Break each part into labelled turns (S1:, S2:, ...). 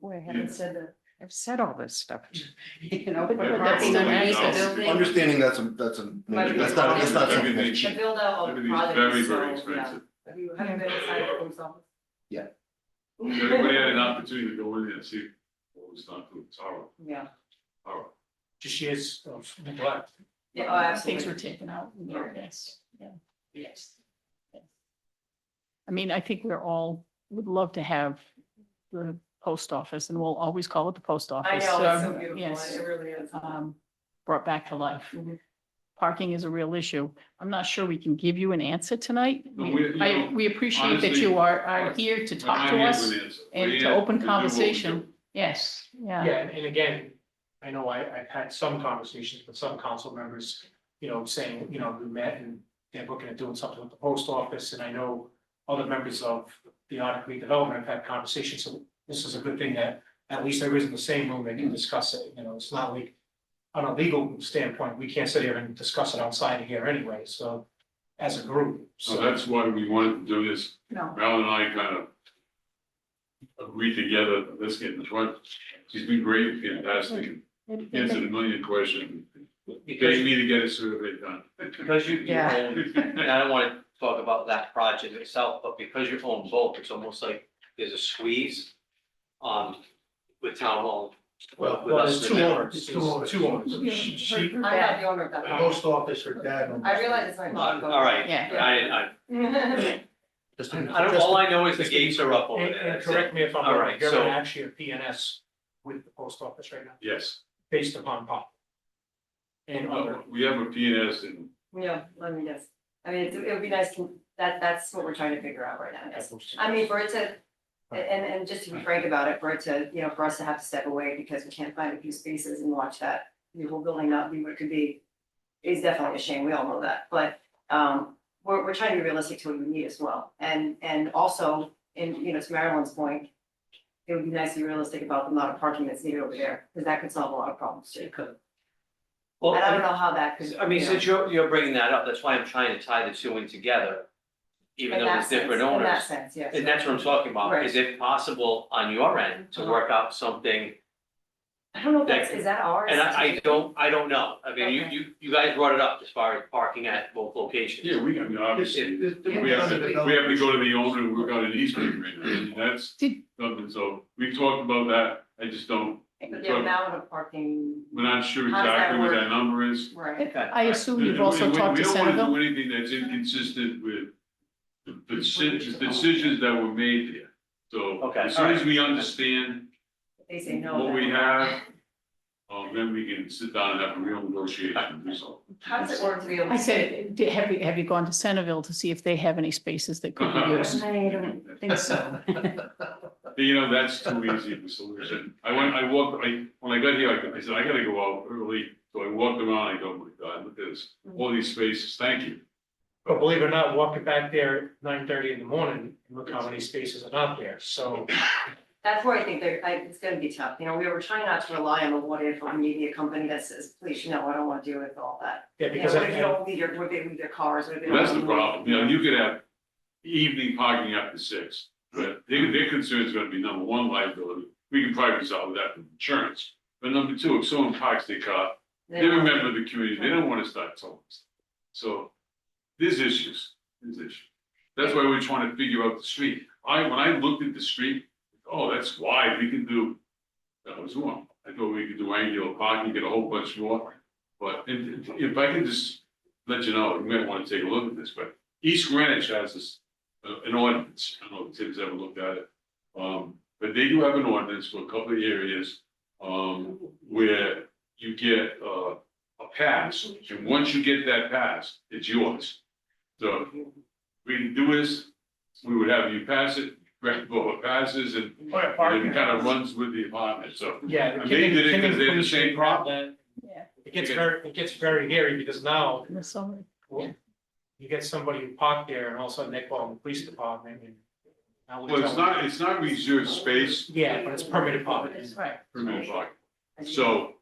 S1: boy, I haven't said that, I've said all this stuff.
S2: Oh,
S1: You know,
S3: But- but
S1: but
S3: that's
S1: that's
S3: not-
S1: underneath the
S3: that's-
S1: building.
S4: Understanding that's a, that's a,
S5: But-
S4: that's not, that's not something.
S3: Everything.
S4: that's
S5: The
S4: cheap.
S5: build out of
S3: Everything's
S5: product
S3: very,
S5: is
S3: very
S5: so, yeah.
S3: expensive.
S5: Have you, have you been inside of yourself?
S4: Yeah.
S3: Everybody had an opportunity to go in there and see what was done to the tower,
S5: Yeah,
S3: tower.
S6: just years of neglect.
S5: yeah, oh,
S2: Things were
S5: absolutely.
S2: taken out, yes, yeah.
S5: Yes.
S2: I mean, I think we're all, would love to have the post office and we'll always call it the post
S5: I know,
S2: office.
S5: it's so
S2: um, yes,
S5: beautiful, it really is.
S2: um, Brought back to life.
S5: Mhm.
S2: Parking is a real issue. I'm not sure we can give you an answer tonight.
S3: No, we- you
S2: I,
S3: know,
S2: we appreciate that
S3: honestly,
S2: you are, are
S3: our-
S2: here to
S3: We're
S2: talk
S3: not
S2: to
S3: here
S2: us.
S3: an answer.
S2: and
S3: We're
S2: to
S3: here
S2: open
S3: do what we
S2: conversation.
S3: do.
S2: Yes, yeah,
S6: Yeah, and, and again, I know I, I've had some conversations with some council members, you know, saying, you know, we met and they're looking at doing something with the post office, and I know other members of the Odyssey Development have had conversations, so this is a good thing that at least there is in the same room, they can discuss it, you know, it's not like on a legal standpoint, we can't sit here and discuss it outside of here anyway, so as a group,
S3: So
S6: so.
S3: that's why we wanted to do this.
S5: No.
S3: Val and I kind of agreed together, let's get in front. She's been great, fantastic, answered a million questions. They
S7: Because,
S3: need to get a survey done.
S7: because you, you
S1: Yeah.
S7: own, and I don't wanna talk about that project itself, but because you own both, it's almost like there's a squeeze. Um, with town hall,
S6: Well,
S7: with us
S6: there's two
S7: in there.
S6: owners, two owners, two owners. She- she-
S5: I'm not the owner of that
S6: the
S5: house.
S6: post office, her dad. owns-
S5: I realize it's my.
S7: Uh, all right,
S2: yeah.
S7: I,
S5: Yeah.
S4: Just-
S7: I, I don't, all I know is the gates are up over
S6: And,
S7: there,
S6: and
S7: that's it.
S6: correct me if I'm
S7: All
S6: wrong,
S7: right,
S6: you're
S7: so-
S6: actually a PNS with the post office right now,
S3: Yes,
S6: based upon pop. And other,
S3: Well, we have a PNS and
S5: Yeah, let me guess. I mean, it's- it would be nice, to- that, that's what we're trying to figure out right now, yes. I mean, for it to, and, and just to be frank about it, for it to, you know, for us to have to step away because we can't find a few spaces and watch that, the whole building not be what it could be, is definitely a shame, we all know that, but, um, we're, we're trying to be realistic to what we need as well, and, and also, in, you know, to Marilyn's point, it would be nice to be realistic about the amount of parking that's needed over there, because that could solve a lot of problems too.
S7: Well,
S5: And I
S7: I-
S5: don't know how that could.
S7: I mean,
S5: you know,
S7: since you're, you're bringing that up, that's why I'm trying to tie the two in together. Even
S5: in
S7: though
S5: that
S7: it's different
S5: sense- In that
S7: owners,
S5: sense, yes.
S7: and that's what I'm talking about,
S5: Right.
S7: is it possible on your end to
S5: Uh-huh.
S7: work out something?
S5: I don't know if
S7: that
S5: that's, is that ours?
S7: And I, I don't, I don't know, I mean, you,
S5: Okay.
S7: you, you guys brought it up as far as parking at both locations.
S3: Yeah, we, I mean, obviously,
S7: It-
S3: we have to, we have to go to the owner, we've got an easement agreement, and that's
S2: Did-
S3: something, so we talked about that, I just don't,
S5: The amount of parking,
S3: we're not sure
S5: How does that
S3: exactly what
S5: work?
S3: that number is.
S5: right,
S2: I assume you've also
S3: And we-
S2: talked to
S3: We don't
S2: Centerville.
S3: wanna do anything that's inconsistent with the decisions, decisions that were made there, so
S7: Okay,
S3: as soon as
S7: alright.
S3: we understand
S5: If they say no.
S3: what
S5: then-
S3: we have, um, then we can sit down and have a real negotiation, so.
S5: How does it work to be able? to
S2: I said, "Did- have you, have you gone to Centerville to see if they have any spaces that could be used?
S1: I don't think so.
S3: You know, that's too easy of a solution. I went, I walked, I, when I got here, I go- I said, I gotta go out early. So I walked around, I go, "Oh my God, look at this, all these spaces, thank you.
S6: but believe it or not, walking back there at nine thirty in the morning, look how many spaces are not there, so.
S5: That's where I think there, I, it's gonna be tough, you know, we were trying not to rely on the what if on media company that says, please, no, I don't wanna deal with all that.
S6: Yeah,
S5: You know,
S6: because
S5: what if you
S6: I,
S5: don't leave your, what if they leave their cars, what if they don't.
S3: That's the
S5: leave-
S3: problem, you know, you could have evening parking after six, but their, their concern is gonna be number one, liability. We can probably resolve that with insurance. But number two, if someone parks their car,
S5: They
S3: they're a
S5: don't-
S3: member of the community, they don't wanna start towing. So, there's issues, there's issues. That's why we're trying to figure out the street. I, when I looked at the street, oh, that's wide, we can do, that was wrong. I thought we could do angular parking, get a whole bunch more. But if, if I can just let you know, you might wanna take a look at this, but East Greenwich has this, uh, an ordinance, I don't know if Tim's ever looked at it. Um, but they do have an ordinance for a couple of areas, um, where you get, uh, a pass. And once you get that pass, it's yours. So we can do this, we would have you pass it, grant both passes and
S6: Or
S3: and
S6: parking.
S3: it kind of runs with the apartment, so.
S6: yeah. the
S3: And they did it 'cause they had the
S6: Kimming-
S3: same
S6: Kimming-
S3: problem.
S2: Yeah.
S6: It gets very, it gets very hairy, because now
S2: In the summer.
S6: Well, you get somebody who parked there and all of a sudden they call the police department and. now we
S3: Well, it's
S6: tell them-
S3: not, it's not reserved space
S6: Yeah, but it's permitted parking.
S2: Right.
S3: for minute parking. So,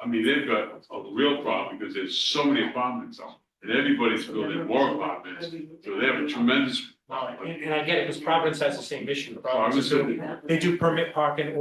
S3: I mean, they've got a real problem because there's so many apartments on, and everybody's building more apartments. So they have a tremendous
S6: No, and, and I get it, because Providence has the same issue.
S3: Providence
S6: Providence,
S3: is-
S6: they do permit parking